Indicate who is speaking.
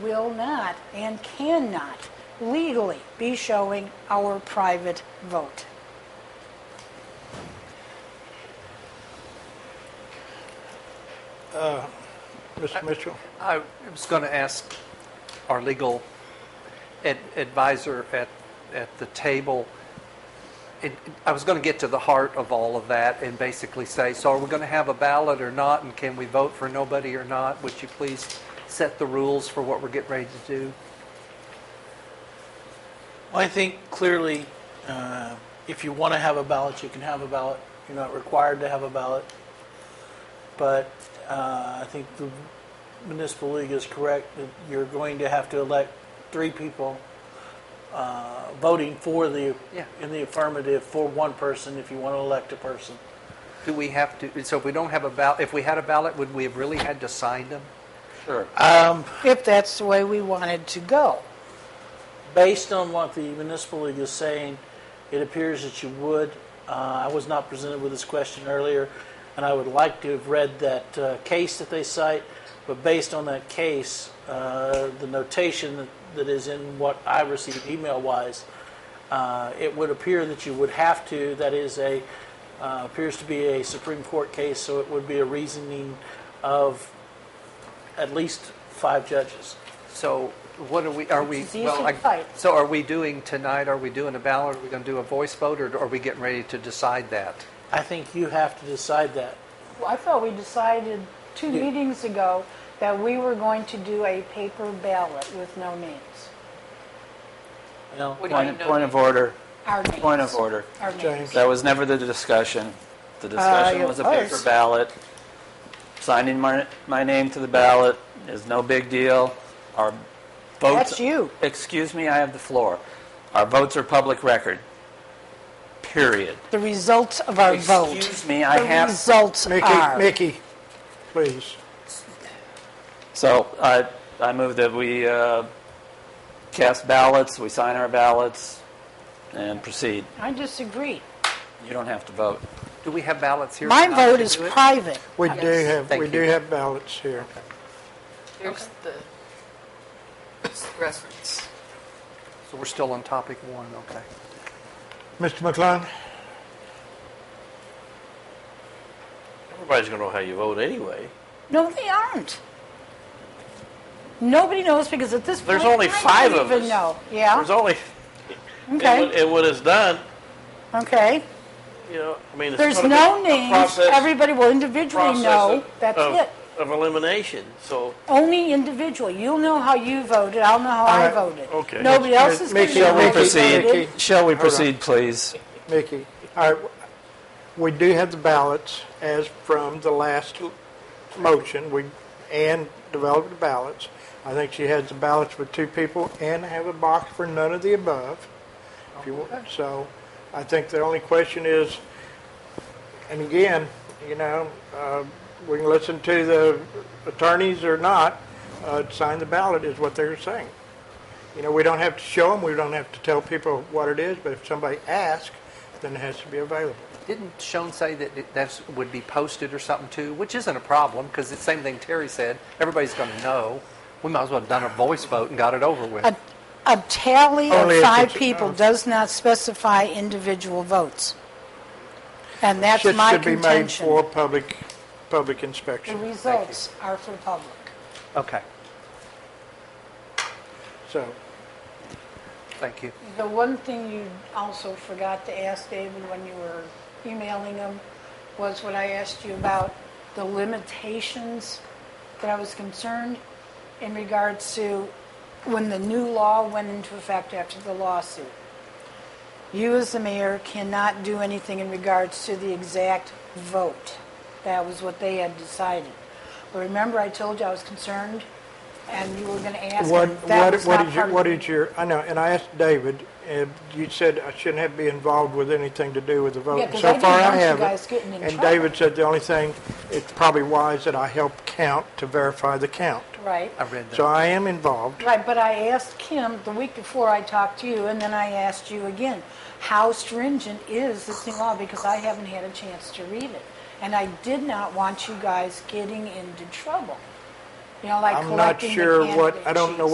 Speaker 1: will not and cannot legally be showing our private vote.
Speaker 2: Uh,
Speaker 3: Mr. Mitchell?
Speaker 4: I was going to ask our legal ad- advisor at, at the table, it- I was going to get to the heart of all of that and basically say, so are we going to have a ballot or not, and can we vote for nobody or not? Would you please set the rules for what we're getting ready to do?
Speaker 2: Well, I think clearly, uh, if you want to have a ballot, you can have a ballot. You're not required to have a ballot. But uh, I think the municipal league is correct that you're going to have to elect three people uh, voting for the,
Speaker 4: Yeah.
Speaker 2: in the affirmative for one person if you want to elect a person.
Speaker 4: Do we have to, so if we don't have a ballot, if we had a ballot, would we have really had to sign them?
Speaker 5: Sure.
Speaker 1: If that's the way we wanted to go.
Speaker 2: Based on what the municipal league is saying, it appears that you would. Uh, I was not presented with this question earlier, and I would like to have read that uh, case that they cite, but based on that case, uh, the notation that, that is in what I received email-wise, uh, it would appear that you would have to, that is a, uh, appears to be a Supreme Court case, so it would be a reasoning of at least five judges.
Speaker 4: So what are we, are we?
Speaker 1: It's an easy
Speaker 4: well, I-
Speaker 1: fight.
Speaker 4: So are we doing tonight, are we doing a ballot, are we going to do a voice vote, or are we getting ready to decide that?
Speaker 2: I think you have to decide that.
Speaker 1: Well, I thought we decided two meetings ago that we were going to do a paper ballot with no names.
Speaker 2: Well,
Speaker 5: Point, point of order.
Speaker 1: Our names.
Speaker 5: Point of order.
Speaker 1: Our names.
Speaker 5: That was never the discussion. The discussion
Speaker 1: it
Speaker 5: was a paper
Speaker 1: was.
Speaker 5: ballot. Signing my, my name to the ballot is no big deal. Our votes.
Speaker 1: That's you.
Speaker 5: Excuse me, I have the floor. Our votes are public record. Period.
Speaker 1: The results of our vote.
Speaker 5: Excuse me, I have-
Speaker 1: The results
Speaker 3: Mickey,
Speaker 1: are.
Speaker 3: Mickey, please.
Speaker 5: So I, I move that we uh, cast ballots, we sign our ballots, and proceed.
Speaker 1: I disagree.
Speaker 5: You don't have to vote.
Speaker 4: Do we have ballots here?
Speaker 1: My
Speaker 4: tonight
Speaker 1: vote
Speaker 4: to
Speaker 1: is
Speaker 4: do it?
Speaker 1: private.
Speaker 3: We do have, we
Speaker 4: Thank
Speaker 3: do
Speaker 4: you.
Speaker 3: have ballots here.
Speaker 6: There's the reference.
Speaker 4: So we're still on topic one, okay.
Speaker 3: Mr. McLung?
Speaker 7: Everybody's going to know how you vote anyway.
Speaker 1: No, they aren't. Nobody knows because at this point,
Speaker 7: There's only
Speaker 1: I
Speaker 7: five
Speaker 1: don't
Speaker 7: of
Speaker 1: even
Speaker 7: us.
Speaker 1: know. Yeah,
Speaker 7: There's only, and what-
Speaker 1: okay,
Speaker 7: and what is done,
Speaker 1: okay.
Speaker 7: you know, I mean, it's
Speaker 1: There's
Speaker 7: gonna be
Speaker 1: no
Speaker 7: a
Speaker 1: names.
Speaker 7: process-
Speaker 1: Everybody will individually
Speaker 7: process
Speaker 1: know.
Speaker 7: of-
Speaker 1: That's
Speaker 7: of-
Speaker 1: it.
Speaker 7: Of elimination, so
Speaker 1: Only individually. You'll know how you voted. I'll know how I
Speaker 3: right,
Speaker 1: voted.
Speaker 7: okay.
Speaker 1: Nobody else is going to
Speaker 3: Mickey,
Speaker 1: know
Speaker 3: shall we
Speaker 1: how they
Speaker 3: proceed?
Speaker 1: voted.
Speaker 5: Shall we proceed, please?
Speaker 3: Mickey, all right, we do have the ballots as from the last motion, we, Ann developed the ballots. I think she has the ballots with two people and have a box for none of the above. If you want, so I think the only question is, and again, you know, uh, we can listen to the attorneys or not, uh, sign the ballot is what they're saying. You know, we don't have to show them, we don't have to tell people what it is, but if somebody asks, then it has to be available.
Speaker 4: Didn't Sean say that it- that's, would be posted or something too? Which isn't a problem, because it's the same thing Terry said, everybody's going to know. We might as well have done a voice vote and got it over with.
Speaker 1: A, a tally
Speaker 3: Only
Speaker 1: of
Speaker 3: if
Speaker 1: five
Speaker 3: it's- oh.
Speaker 1: people does not specify individual votes. And that's
Speaker 3: Should-
Speaker 1: my
Speaker 3: Should be made for
Speaker 1: contention.
Speaker 3: public, public
Speaker 1: The
Speaker 3: inspection,
Speaker 1: results are for public.
Speaker 4: Okay,
Speaker 3: so.
Speaker 4: thank you.
Speaker 1: The one thing you also forgot to ask David when you were emailing him was what I asked you about the limitations that I was concerned in regards to when the new law went into effect after the lawsuit. You as the mayor cannot do anything in regards to the exact vote. That was what they had decided. But remember, I told you I was concerned and you were going to ask.
Speaker 3: What,
Speaker 1: and that
Speaker 3: what,
Speaker 1: was
Speaker 3: what
Speaker 1: not
Speaker 3: is
Speaker 1: part
Speaker 3: your,
Speaker 1: of
Speaker 3: what
Speaker 1: the-
Speaker 3: is your, I know, and I asked David, and you said I shouldn't have to be involved with anything to do with the vote.
Speaker 1: Yeah,
Speaker 3: And
Speaker 1: 'cause I
Speaker 3: So
Speaker 1: didn't
Speaker 3: far, I
Speaker 1: want you
Speaker 3: haven't.
Speaker 1: guys getting in
Speaker 3: And
Speaker 1: trouble.
Speaker 3: David said the only thing, it's probably wise that I help count to verify the count.
Speaker 1: Right.
Speaker 4: I read
Speaker 3: So
Speaker 4: that.
Speaker 3: I am involved.
Speaker 1: Right, but I asked Kim the week before I talked to you, and then I asked you again, how stringent is this new law? Because I haven't had a chance to read it. And I did not want you guys getting into trouble. You know, like
Speaker 3: I'm not
Speaker 1: collecting the
Speaker 3: sure what,
Speaker 1: candidate
Speaker 3: I don't know
Speaker 1: sheets.